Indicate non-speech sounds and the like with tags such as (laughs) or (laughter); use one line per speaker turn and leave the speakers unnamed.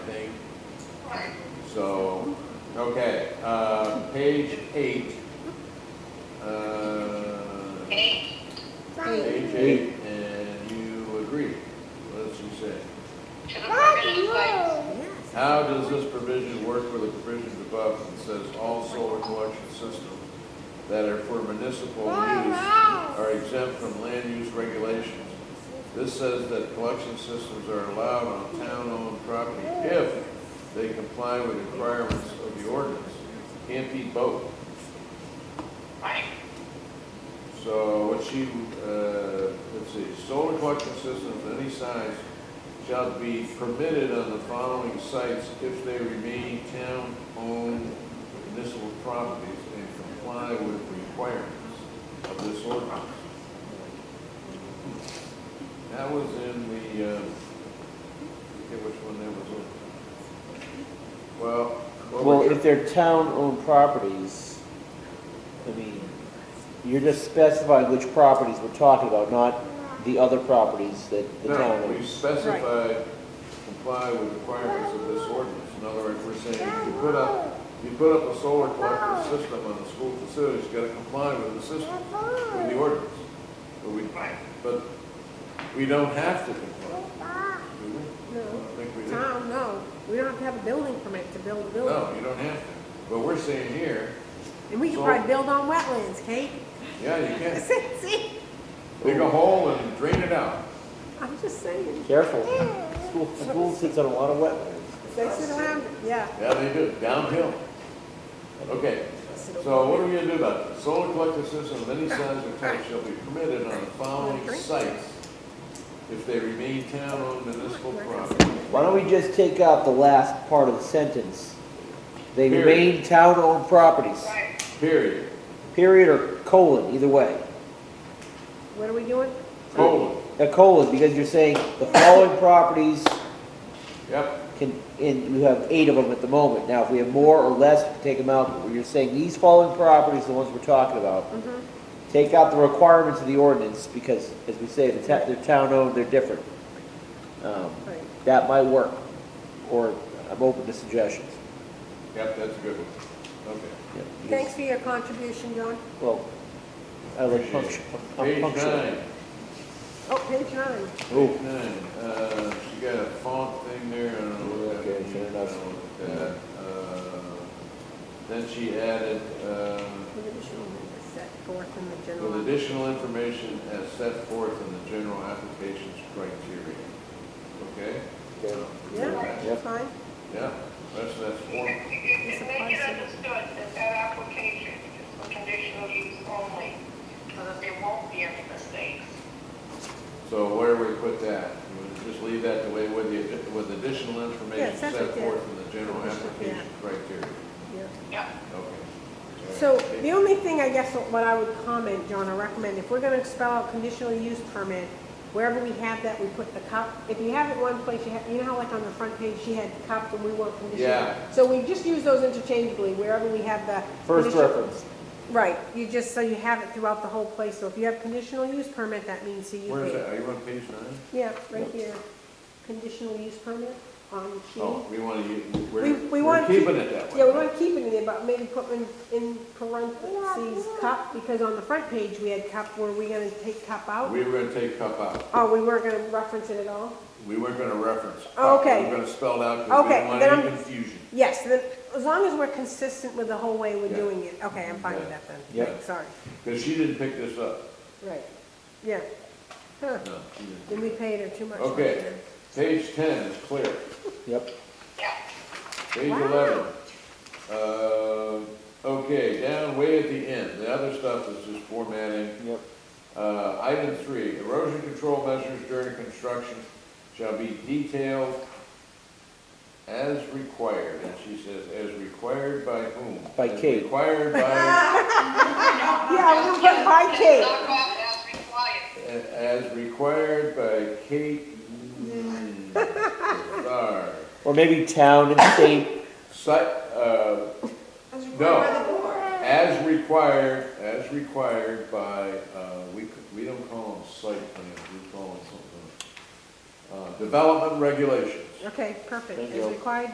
So, okay, uh, page eight. Uh,
Okay.
Page eight, and you agree, what does she say?
To the provisions by,
How does this provision work with the provisions above that says all solar collection systems that are for municipal use are exempt from land use regulations? This says that collection systems are allowed on town-owned property if they comply with requirements of the ordinance. Can't be both.
right,
So what she, uh, let's see, solar collection systems of any size shall be permitted on the following sites if they remain town-owned municipal properties and comply with requirements of this ordinance. That was in the, uh, I forget which one that was on. Well. what we're
Well, if they're town-owned properties, I mean, you're just specifying which properties we're talking about, not the other properties that the town
No, we
owns.
specified comply with requirements of this ordinance. In other words, we're saying if you put up, you put up a solar collector system on the school facilities, you gotta comply with the system, with the ordinance. But we,
right.
but we don't have to comply, do we? I don't think we do.
Tom, no, we don't have to have a building permit to build a building.
No, you don't have to. But we're saying here,
And we can probably build on wetlands, Kate. (laughs)
yeah, you can.
See,
Dig a hole and drain it out.
I'm just saying,
Careful, school, school sits on a lot of wetlands.
they sit around, yeah.
Yeah, they do, downhill. Okay, So what are we gonna do about it? Solar collector systems of any size or type shall be permitted on the following sites if they remain town-owned municipal property.
Why don't we just take out the last part of the sentence? They
Period.
remain town-owned properties,
Right.
Period,
period or colon, either way.
What are we doing?
colon,
A colon, because you're saying the following properties
yep,
can, and we have eight of them at the moment. Now, if we have more or less, we can take them out. But You're saying these following properties, the ones we're talking about, take out the requirements of the ordinance because, as we say, the ta- they're town-owned, they're different. Um,
Right.
That might work, or I'm open to suggestions.
yep, that's a good one, okay.
Yeah, because-
Thanks for your contribution, John.
Well, I like punctu-
Page
punctual.
nine,
Oh, page nine.
Ooh.
page nine, uh, she got a font thing there, I don't know what that
Okay,
means.
fair
I
enough.
don't know what that, uh, Then she added, um,
With additional members set forth in the
with
general.
additional information as set forth in the general applications criteria. Okay?
Okay.
Yeah,
Yep.
fine.
Yeah, that's, that's form,
Just make it understood that that application is for conditional use only, so that there won't be any mistakes.
so where do we put that? You would Just leave that the way with the, with additional information
Yeah,
set
that's right there.
forth in the general
Yeah.
application criteria.
Yeah.
Yep.
Okay.
So
Okay.
the only thing, I guess, what I would comment, John, or recommend, if we're gonna spell out conditional use permit, wherever we have that, we put the cop, if you have it one place, you have, you know how like on the front page, she had cop and we want conditional?
Yeah.
So we just use those interchangeably, wherever we have the.
First
condition-
reference,
Right, you just, so you have it throughout the whole place, so if you have conditional use permit, that means CUP.
Where is that? Are you on page nine?
Yeah, right here, conditional use permit on sheet.
Oh, we want to,
We,
we're,
we
we're
want to.
keeping it that way.
Yeah, we want to keep it in there, but maybe put in, in parentheses, cup, because on the front page, we had cup, were we gonna take cup out?
We were gonna take cup out.
Oh, we weren't gonna reference it at all?
We weren't gonna reference. cup.
Oh, okay.
We were gonna spell it out because we
Okay,
didn't want
then
any
I'm-
confusion.
Yes, then, as long as we're consistent with the whole way we're
Yeah.
doing it, okay, I'm fine with
Yeah.
that then.
Yeah.
Right, Sorry,
Because she didn't pick this up.
right, yeah. Huh,
No, she didn't.
then we paid her too much.
Okay, page ten is clear.
yep.
Yeah.
Page
Wow.
eleven. Uh, okay, down way at the end, the other stuff is just formatting.
Yep.
Uh, item three, erosion control measures during construction shall be detailed as required, and she says, as required by whom?
By
As
Kate.
Required by,
Yeah, we can put by Kate.
Knock off as
as
required.
required by Kate Starr.
Or maybe town and state,
Site, uh, no, as required, as required by, uh, we, we don't call them site plans, we call them something. else. Uh, development regulations.
Okay, perfect,
Thank
as
you.
required